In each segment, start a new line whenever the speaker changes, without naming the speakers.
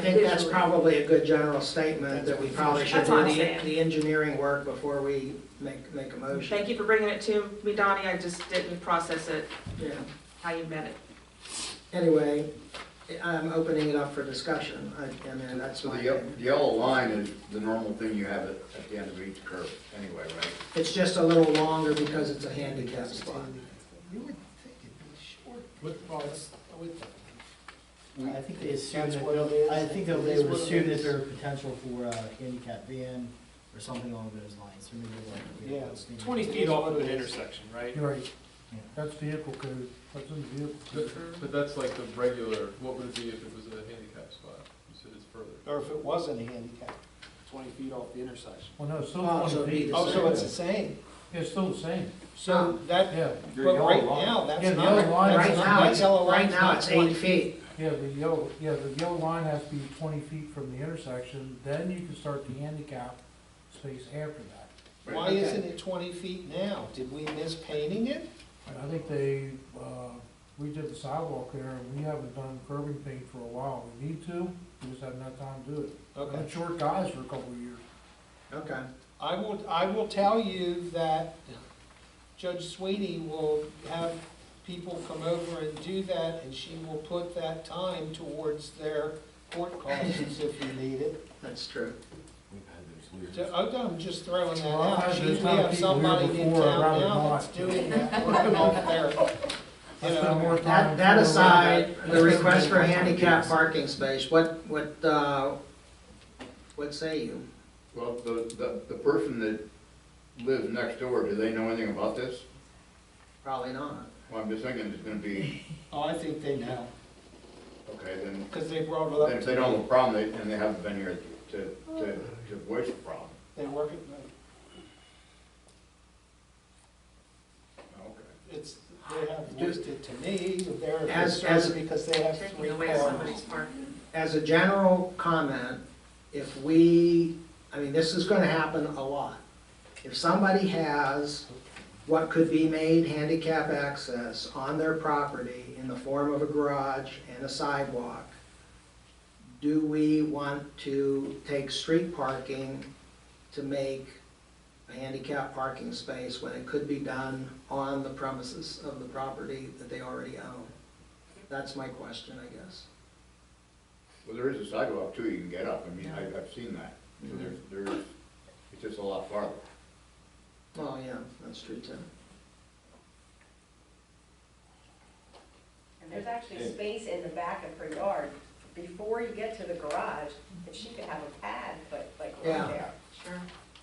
I think that's
Visually.
probably a good general statement, that we probably should
That's what
do
I'm
the,
saying.
the engineering work before we make, make a motion.
Thank you for bringing it to me, Donnie, I just didn't process it
Yeah.
how you meant it.
Anyway, I'm opening it up for discussion. I, I mean, that's
So
my,
the, ye- the yellow line is the normal thing you have at, at the end of each curve anyway, right?
it's just a little longer because it's a handicap spot.
You would think it'd be short.
Well, it's- we-
I think they assume
That's what it
that,
is.
I think that they
That's
would
what it
assume that
is.
there are potential for a handicap van or something along those lines, or maybe like.
Yeah, it's twenty feet off of an intersection, right?
Right, that's vehicle code, that's in the vehicle.
But but that's like the regular, what would it be if it was a handicap spot? You said it's further.
Or if it wasn't a handicap, twenty feet off the intersection.
Well, no, it's still
Oh, so it'd
twenty
be
feet,
the
Oh, so
same.
it's the same.
it's still the same,
So that,
yeah,
Your
but
yellow
right
line-
now, that's
Yeah, the
not,
yellow line
that's
Right
not,
now,
that
it's,
yellow
right
line's
now,
not
it's eight
twenty.
feet.
yeah, the yellow, yeah, the yellow line has to be twenty feet from the intersection, then you can start the handicap space after that.
Why isn't it twenty feet now? Did we miss painting it?
And I think they, uh, we did the sidewalk there, and we haven't done curbing paint for a while, we need to, we just haven't had time to do it. I've
Okay.
been short guys for a couple of years.
Okay.
I will, I will tell you that Judge Sweeney will have people come over and do that, and she will put that time towards their court costs if you need it.
That's true.
Ju- I'm I'm just throwing that
Well, I've
out.
had
She-
those
We
kind of
have
people here
somebody in
before, I'd
town
rather
now
not.
that's doing that, working off their,
I
you
spent
know.
more
That,
time.
that
doing
aside, the
that.
request for handicap parking space, what, what, uh, what say you?
Well, the, the, the person that lives next door, do they know anything about this?
Probably not.
Well, I'm just thinking it's gonna be,
Oh, I think they know,
okay, then,
because they brought it
then
up.
if they don't have a problem, they, and they haven't been here to, to, to voice the problem.
They work it,
Okay.
it's, they have voiced it to me, they're
As- as-
concerned because they have three
Taking away
cars.
somebody's park.
as a general comment, if we, I mean, this is gonna happen a lot. If somebody has what could be made handicap access on their property in the form of a garage and a sidewalk, do we want to take street parking to make a handicap parking space when it could be done on the premises of the property that they already own? That's my question, I guess.
Well, there is a sidewalk too, you can get up, I mean, I, I've seen that, so there's, there's, it's just a lot farther.
Well, yeah, that's true too.
And there's actually space in the back of her yard before you get to the garage, and she could have a pad, but like
Yeah.
right there.
Sure.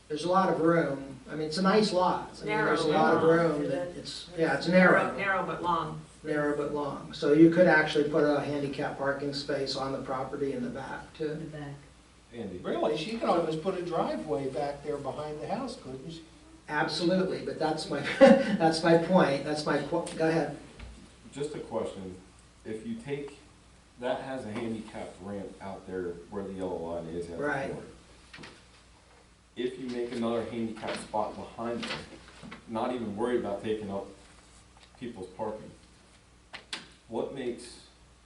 There's a lot of room. I mean, it's a nice lot. I mean, There's a lot of
Narrow.
room that it's, yeah, it's narrow,
Narrow but long.
narrow but long. So you could actually put a handicap parking space on the property in the back too.
Really, she could almost put a driveway back there behind the house, couldn't she?
Absolutely, but that's my, that's my point. That's my, qu- go ahead.
Just a question, if you take, that has a handicapped ramp out there where the yellow line is at the
Right.
corner. If you make another handicapped spot behind it, not even worried about taking up people's parking, what makes,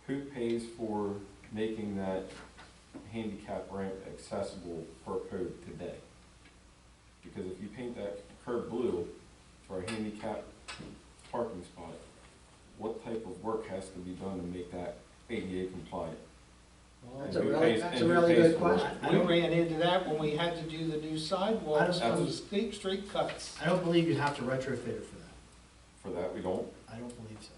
who pays for making that handicap ramp accessible per code today? Because if you paint that curb blue for a handicap parking spot, what type of work has to be done to make that ADA compliant?
That's a really, that's a really good question.
We ran into that when we had to do the new sidewalks
I don't-
from the steep street cuts.
I don't believe you have to retrofit it for that.
For that, we don't.
I don't believe so.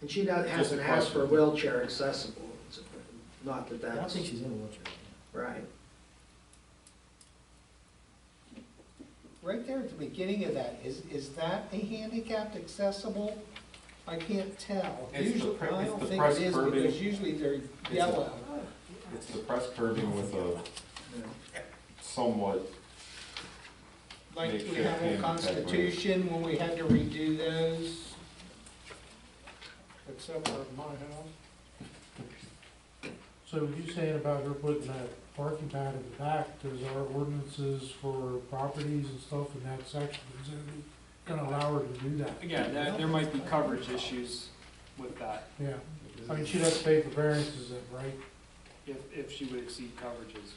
And she doesn't, hasn't asked for wheelchair accessible. It's a- Not that
I don't
that's,
think she's in a wheelchair.
right.
Right there at the beginning of that, is, is that a handicapped accessible? I can't tell.
It's the
Usually,
pre-
I
it's
don't
the
think
press
it is
curbing.
because usually they're
a-
yellow.
It's the press curbing with a
Yeah.
somewhat,
Like we
makeshift
have on
handicap ramp.
Constitution when we had to redo those. Except for my house.
So you saying about her putting that parking pad in the back, does our ordinances for properties and stuff in that section, is it gonna allow her to do that?
Again, there, there might be coverage issues with that.
Yeah, I mean, she'd have to pay for variances, then, right? if, if she would exceed coverages.